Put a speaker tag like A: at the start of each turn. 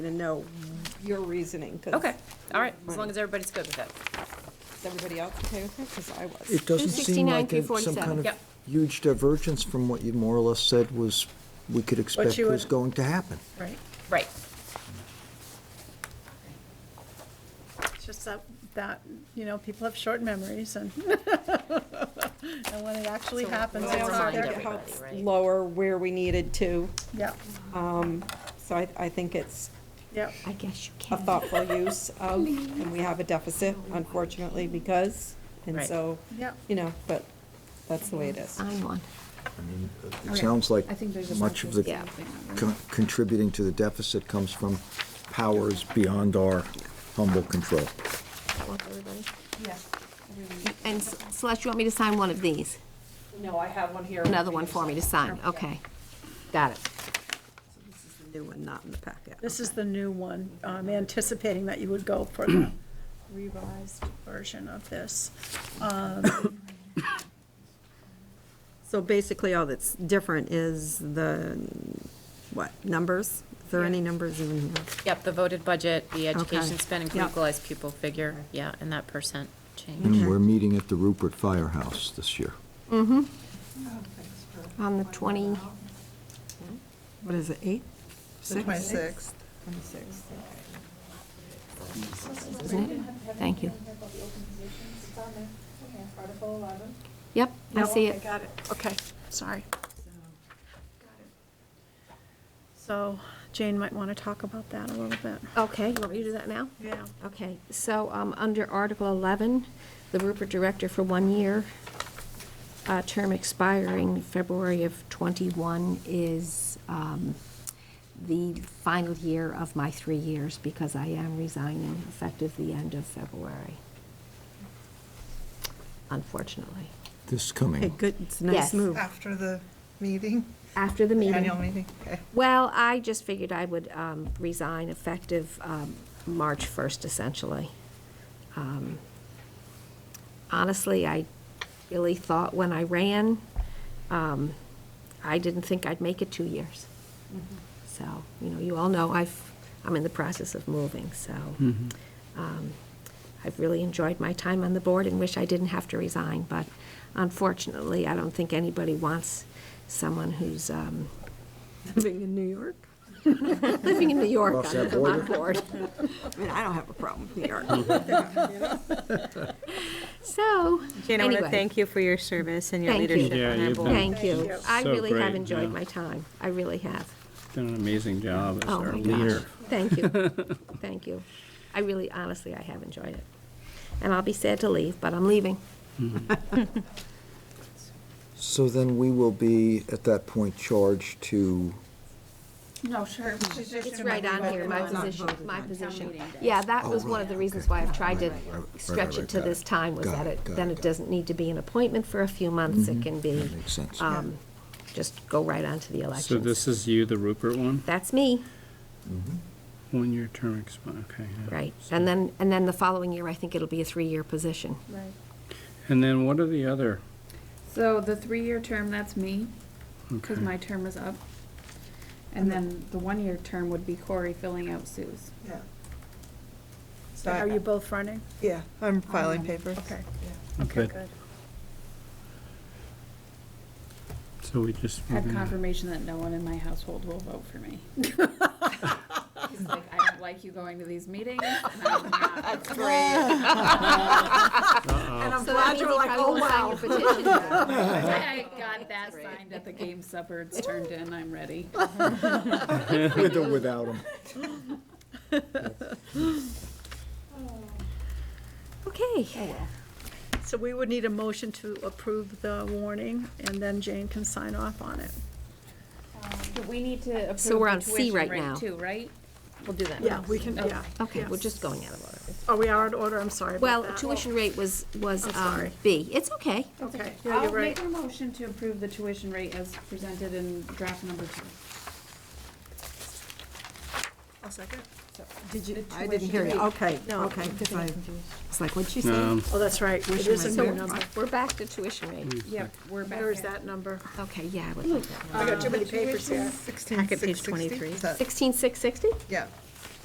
A: to know your reasoning, because.
B: Okay, all right, as long as everybody's good with it.
A: Is everybody else okay with it? Because I was.
C: It doesn't seem
D: 269
C: like
D: through
C: a- some
D: 47.
C: kind of
B: Yep.
C: huge divergence from what you more or less said was, we could expect
A: you
C: was
A: would-
C: going to happen.
B: Right. Right,
E: It's just that, that, you know, people have short memories and, and when it actually
B: So
E: happens,
B: we'll
A: I
E: it's
A: also
E: not
B: remind
A: think
E: there.
A: it helps
B: everybody, right?
A: lower where we needed to,
E: Yeah,
A: so I, I think it's
E: yeah,
D: I guess you
A: a
D: can.
A: thoughtful use of, and we have a deficit unfortunately because, and
B: Right.
A: so,
E: yeah.
A: you know, but that's the way it is.
D: Sign one.
C: I mean, it
F: Okay.
C: sounds like
F: I think there's a
C: much of the
F: Yeah.
C: con- contributing to the deficit comes from powers beyond our humble control.
D: That work, everybody? And S- Celeste, you want me to sign one of these?
A: No, I have one here.
D: Another one for me to sign? Okay. Got it.
A: New one, not in the packet.
E: This is the new one, um, anticipating that you would go for the revised version of this. Um,
A: So basically, all that's different is the, what, numbers? Is there any numbers even here?
B: Yep, the voted budget, the education
A: Okay.
B: spending per
A: Yep.
B: equalized pupil figure, yeah, and that percent change.
C: And we're meeting at the Rupert Firehouse this year.
D: Mm-hmm. On the 20,
A: What is it, eight?
G: The twenty-sixth.
A: Twenty-six.
D: isn't it? Thank you. Yep, I see
E: Oh, I
D: it.
E: got it, okay, sorry. So Jane might want to talk about that a little bit.
D: Okay, you want me to do that now?
E: Yeah.
D: Okay, so um, under Article 11, the Rupert Director for one year, uh, term expiring February of '21 is um, the final year of my three years because I am resigning effective the end of February, unfortunately.
C: This
A: Okay,
C: coming,
A: good, it's a nice
D: Yes.
A: move.
G: After the meeting,
D: After the meeting.
G: annual meeting, okay.
D: Well, I just figured I would um, resign effective um, March 1st, essentially. Um, Honestly, I really thought when I ran, um, I didn't think I'd make it two years.
A: Mm-hmm.
D: So, you know, you all know I've, I'm in the process of moving, so um, I've really enjoyed my time on the board and wish I didn't have to resign, but unfortunately, I don't think anybody wants someone who's, um,
A: Living in New York?
D: living in New York
C: Cross
D: on
C: that
D: the Vermont board.
A: I mean, I don't have a problem with New York.
D: So,
H: Jane, I want to
D: anyway,
H: thank you for your service and your
D: Thank you.
H: leadership
I: Yeah,
H: on our
I: you've
H: board.
D: Thank you. I
I: So
D: really have
I: great, yeah.
D: enjoyed my time. I really have.
I: Done an amazing job as
D: Oh,
I: our
D: my gosh.
I: leader.
D: Thank you. Thank you. I really, honestly, I have enjoyed it. And I'll be sad to leave, but I'm leaving.
C: so then we will be, at that point, charged to,
E: No, sure.
D: It's right on here, my position, my position. Yeah, that
C: Oh,
D: was one of
C: really?
D: the reasons why I've tried to
C: right, right, right,
D: stretch
C: right,
D: it to
C: got
D: this
C: it.
D: time, was
C: Got
D: that
C: it,
D: it,
C: got
D: then
C: it, got
D: it
C: it. Mm-hmm.
D: doesn't need to be an appointment for a few months. It can be,
C: that makes
F: Uh,
C: sense.
D: um, just go right on to the
I: So
D: elections.
I: this is you, the Rupert one?
D: That's me.
C: Mm-hmm.
I: One-year term expire, okay. yeah.
D: Right, and then, and then the following year, I think it'll be a three-year position.
I: And then what are the other?
F: So the three-year term, that's me, because
I: okay.
F: my term is up. And then the one-year term would be Corey filling out Sue's.
G: Yeah. So,
E: Are you
G: I-
E: both running?
G: yeah, I'm filing papers.
E: Okay.
I: Okay.
E: Good.
I: So we just.
F: I have
I: moving on.
F: confirmation that no one in my household will vote for me. He's like, I don't like you going to these meetings. and I'm not."
A: And I'm
D: So that
A: glad
D: means
A: you were
D: he
A: like,
D: probably
A: oh,
D: won't sign
A: wow.
D: your petition then.
F: I got that signed at the game supper, it's turned in, I'm ready.
C: With or without them.
D: Okay,
E: So we would need a motion to approve the warning, and then Jane can sign off on it.
F: We need to approve
D: So we're on C right now.
F: too, right?
B: We'll do that.
E: Yeah, we can, oh, yeah.
D: okay, we're
E: yes.
D: just going out of order.
E: Oh, we are in order, I'm sorry about
D: Well,
E: that.
D: tuition rate was, was
E: I'm
D: um,
E: sorry.
D: B. It's okay.
E: Okay, yeah,
F: I'll
E: you're right.
F: make a motion to approve the tuition rate as presented in draft number two.
E: I'll second.
A: Did you, I didn't hear you, okay,
G: Oh,
A: okay. 'cause I was like, what'd she say?
I: Um,
E: Oh, that's right, it is a new number. Mm.
D: We're back to tuition rate.
F: Yep, we're back.
E: Where is
F: at-
E: that number?
D: Okay,
E: Mm.
D: yeah, I would like that.
E: Uh, I got too many papers here.
G: Sixteen,
H: Packet page
G: six sixty?
H: 23.
G: Is that-
D: 16,660?
G: Yeah,